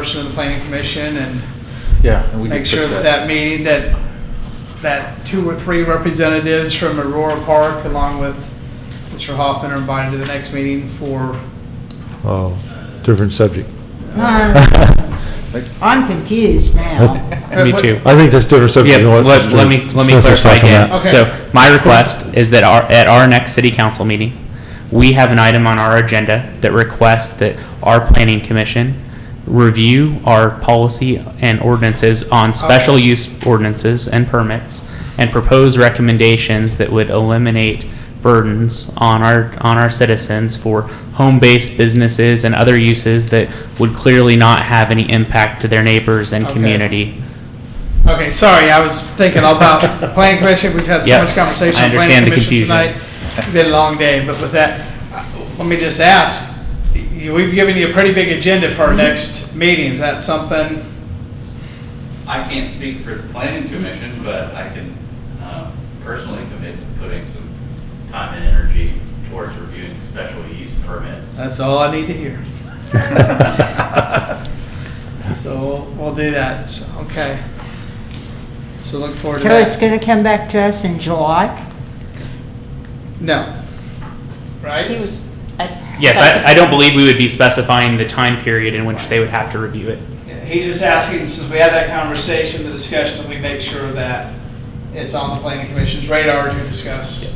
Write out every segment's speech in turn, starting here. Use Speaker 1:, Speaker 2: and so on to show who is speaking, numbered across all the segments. Speaker 1: portion of the planning commission and
Speaker 2: Yeah. and we can
Speaker 1: make sure
Speaker 2: put
Speaker 1: that that meeting, that, that two or three representatives from Aurora Park along with Mr. Hoffman are invited to the next meeting for,
Speaker 3: Oh, different subject.
Speaker 4: Uh, I'm confused now.
Speaker 5: Me too.
Speaker 3: I think that's different
Speaker 5: Yeah,
Speaker 3: subject. than what
Speaker 5: let,
Speaker 3: Mr.
Speaker 5: let me, let me
Speaker 3: Smith was
Speaker 5: clarify
Speaker 3: talking
Speaker 5: again.
Speaker 3: about.
Speaker 1: Okay.
Speaker 5: So my request is that our, at our next city council meeting, we have an item on our agenda that requests that our planning commission review our policy and ordinances on special use ordinances and permits and propose recommendations that would eliminate burdens on our, on our citizens for home-based businesses and other uses that would clearly not have any impact to their neighbors and
Speaker 1: Okay.
Speaker 5: community.
Speaker 1: okay, sorry, I was thinking about planning commission, we've had so much
Speaker 5: Yes,
Speaker 1: conversation
Speaker 5: I
Speaker 1: on planning
Speaker 5: understand the
Speaker 1: commission tonight.
Speaker 5: confusion.
Speaker 1: It's been a long day, but with that, uh, let me just ask, you- we've given you a pretty big agenda
Speaker 5: Mm-hmm.
Speaker 1: for our next meeting, is that something?
Speaker 6: I can't speak for the planning commission, but I can um, personally commit to putting some time and energy towards reviewing special use permits.
Speaker 1: That's all I need to hear. So we'll- we'll do that, So, okay. So look forward to
Speaker 4: So it's
Speaker 1: that.
Speaker 4: going to come back to us in July?
Speaker 1: No.
Speaker 7: He
Speaker 1: Right?
Speaker 7: was. I-
Speaker 5: Yes, I, I don't believe we would be specifying the time period in which they would have to review it.
Speaker 1: He's just asking, since we had that conversation, the discussion, that we make sure that it's on the planning commission's radar to discuss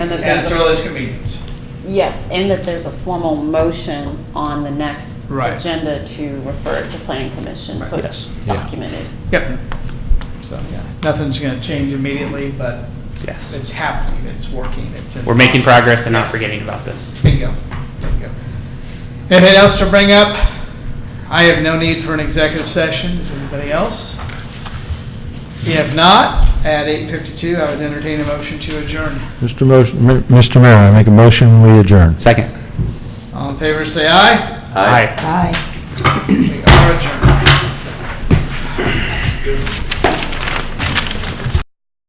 Speaker 7: And that
Speaker 1: as
Speaker 7: there's
Speaker 1: their
Speaker 7: a,
Speaker 1: earliest convenience.
Speaker 7: yes, and that there's a formal motion on the next
Speaker 1: Right.
Speaker 7: agenda to refer it to planning commission, so it's
Speaker 3: Yeah.
Speaker 7: documented.
Speaker 1: Yep. So, yeah, nothing's gonna change immediately, but
Speaker 5: Yes.
Speaker 1: it's happening, it's working, it's. in
Speaker 5: We're making
Speaker 1: process.
Speaker 5: progress and not
Speaker 1: Yes.
Speaker 5: forgetting about this.
Speaker 1: Bingo. Bingo. Anything else to bring up? I have no need for an executive session. Does anybody else? If not, at 8:52, I would entertain a motion to adjourn.
Speaker 3: Mr. Motion, Mr. Mayor, I make a motion, we adjourn.
Speaker 5: Second.
Speaker 1: All in favor, say aye.
Speaker 5: Aye.
Speaker 4: Aye.
Speaker 1: We are adjourned.